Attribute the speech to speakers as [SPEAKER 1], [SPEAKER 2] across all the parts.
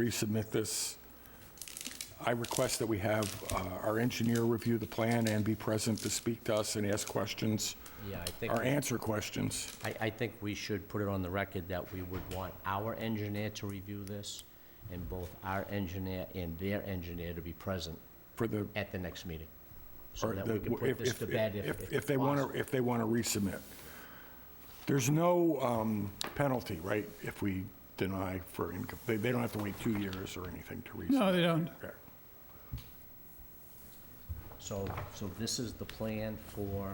[SPEAKER 1] resubmit this. I request that we have uh, our engineer review the plan and be present to speak to us and ask questions,
[SPEAKER 2] Yeah, I think,
[SPEAKER 1] or answer questions.
[SPEAKER 2] I, I think we should put it on the record that we would want our engineer to review this, and both our engineer and their engineer to be present
[SPEAKER 1] For the,
[SPEAKER 2] at the next meeting, so
[SPEAKER 1] or
[SPEAKER 2] that we can
[SPEAKER 1] the,
[SPEAKER 2] put this
[SPEAKER 1] if,
[SPEAKER 2] to bed if,
[SPEAKER 1] if, if they want
[SPEAKER 2] possible.
[SPEAKER 1] to, if they want to resubmit. There's no um, penalty, right, if we deny for income, they, they don't have to wait two years or anything to resubmit?
[SPEAKER 3] No, they don't.
[SPEAKER 1] Okay.
[SPEAKER 2] So, so this is the plan for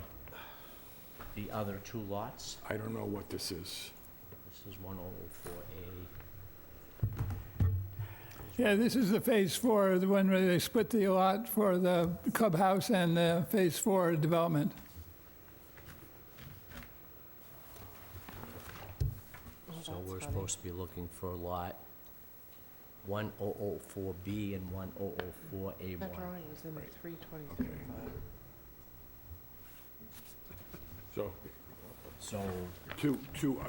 [SPEAKER 2] the other two lots?
[SPEAKER 1] I don't know what this is.
[SPEAKER 2] This is 104A.
[SPEAKER 3] Yeah, this is the phase four, the one where they split the lot for the clubhouse and the phase four development.
[SPEAKER 2] So we're supposed to be looking for lot 1004B and 1004A1.
[SPEAKER 4] That drawing is in the three twenty-three file.
[SPEAKER 1] So,
[SPEAKER 2] So,
[SPEAKER 1] to, to, uh,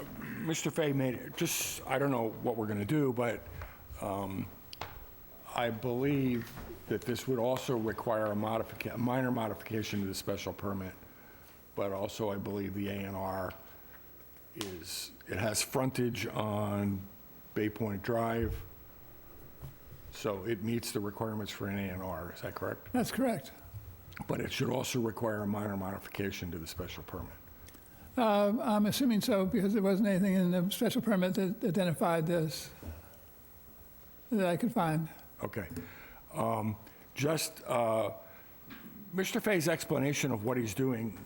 [SPEAKER 1] Mr. Fay made, it. just, I don't know what we're going to do, but um, I believe that this would also require a modification, a minor modification to the special permit, but also I believe the A and R is, it has frontage on Bay Point Drive, so it meets the requirements for an A and R, is that correct?
[SPEAKER 3] That's correct.
[SPEAKER 1] But it should also require a minor modification to the special permit.
[SPEAKER 3] Uh, I'm assuming so because there wasn't anything in the special permit that identified this that I could find.
[SPEAKER 1] Okay. Um, Just, uh, Mr. Fay's explanation of what he's doing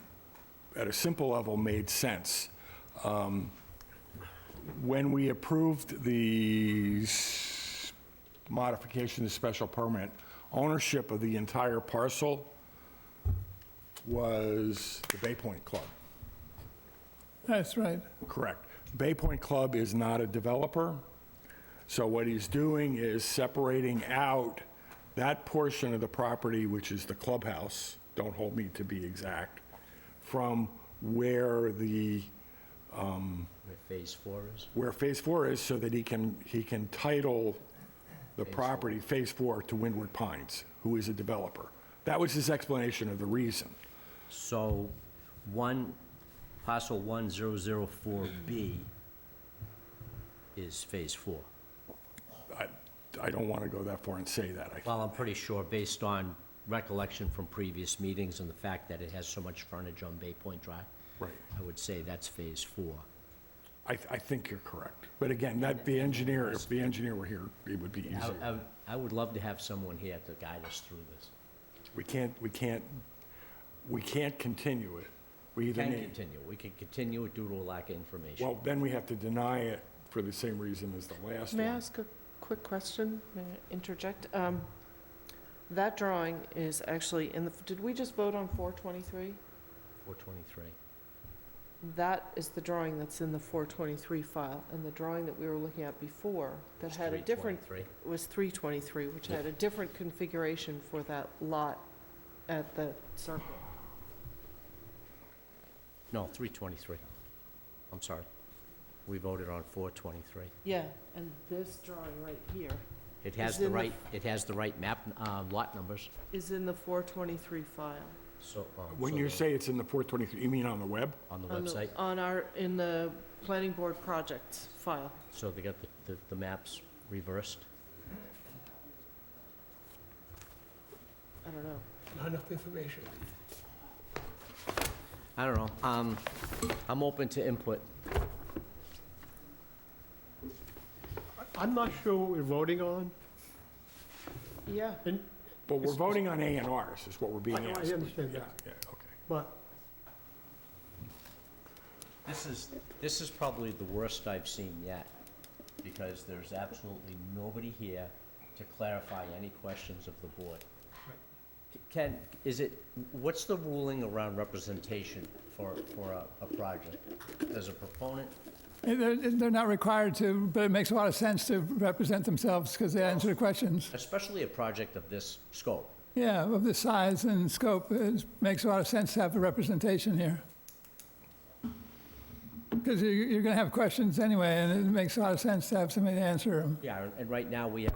[SPEAKER 1] at a simple level made sense. Um, When we approved the s- modification to special permit, ownership of the entire parcel was the Bay Point Club.
[SPEAKER 3] That's right.
[SPEAKER 1] Correct. Bay Point Club is not a developer, so what he's doing is separating out that portion of the property, which is the clubhouse, don't hold me to be exact, from where the,
[SPEAKER 2] where phase four is?
[SPEAKER 1] where Phase 4 is, so that he can, he can title the property, Phase 4, to Windward Pines, who is a developer. That was his explanation of the reason.
[SPEAKER 2] So, one, parcel 1004B is phase four.
[SPEAKER 1] I, I don't want to go that far and say that. I
[SPEAKER 2] Well, I'm pretty sure, based on recollection from previous meetings and the fact that it has so much frontage on Bay Point Drive,
[SPEAKER 1] Right.
[SPEAKER 2] I would say that's phase four.
[SPEAKER 1] I, I think you're correct. But again, that, the engineer, if the engineer were here, it would be
[SPEAKER 2] I,
[SPEAKER 1] easier.
[SPEAKER 2] I, I would love to have someone here to guide us through this.
[SPEAKER 1] We can't, we can't, we can't continue it. We either
[SPEAKER 2] Can
[SPEAKER 1] need,
[SPEAKER 2] continue, we can continue it due to a lack of information.
[SPEAKER 1] well, then we have to deny it for the same reason as the last
[SPEAKER 4] May I
[SPEAKER 1] one.
[SPEAKER 4] ask a quick question? May I interject? Um, That drawing is actually in the, did we just vote on four twenty-three?
[SPEAKER 2] 423.
[SPEAKER 4] That is the drawing that's in the four twenty-three file, and the drawing that we were looking at before that
[SPEAKER 2] It's
[SPEAKER 4] had a different,
[SPEAKER 2] 323.
[SPEAKER 4] was three twenty-three, which
[SPEAKER 2] Yeah.
[SPEAKER 4] had a different configuration for that lot at the circle.
[SPEAKER 2] No, 323. I'm sorry. We voted on 423.
[SPEAKER 4] Yeah, and this drawing right here
[SPEAKER 2] It has
[SPEAKER 4] Is
[SPEAKER 2] the
[SPEAKER 4] in the-
[SPEAKER 2] right, it has the right map, uh, lot numbers,
[SPEAKER 4] is in the four twenty-three file.
[SPEAKER 2] so. um,
[SPEAKER 1] When
[SPEAKER 2] so
[SPEAKER 1] you
[SPEAKER 2] the-
[SPEAKER 1] say it's in the 423, you mean on the web?
[SPEAKER 2] On the
[SPEAKER 4] on the-
[SPEAKER 2] website,
[SPEAKER 4] On our, in the planning board projects file.
[SPEAKER 2] so they got the- the, the maps reversed.
[SPEAKER 4] I don't know.
[SPEAKER 5] Not enough information.
[SPEAKER 2] I don't know, um, I'm open to input.
[SPEAKER 5] I'm not sure what we're voting on.
[SPEAKER 4] Yeah.
[SPEAKER 1] But we're voting on A and Rs, is what we're
[SPEAKER 5] I
[SPEAKER 1] being
[SPEAKER 5] I
[SPEAKER 4] oh,
[SPEAKER 1] asked.
[SPEAKER 5] understand
[SPEAKER 1] Yeah,
[SPEAKER 5] that,
[SPEAKER 1] yeah, okay.
[SPEAKER 5] but
[SPEAKER 2] This is, this is probably the worst I've seen yet, because there's absolutely nobody here to clarify any questions of the board. Ken, is it, what's the ruling around representation for, for a, a project? Does a proponent,
[SPEAKER 3] Eh, They're, they're not required to, but it makes a lot of sense to represent themselves because they answer the questions.
[SPEAKER 2] especially a project of this scope,
[SPEAKER 3] Yeah, of the size and scope, it makes a lot of sense to have the representation here. because you're, you're going to have questions anyway, and it makes a lot of sense to have somebody to answer them.
[SPEAKER 2] Yeah, and- and right now, we have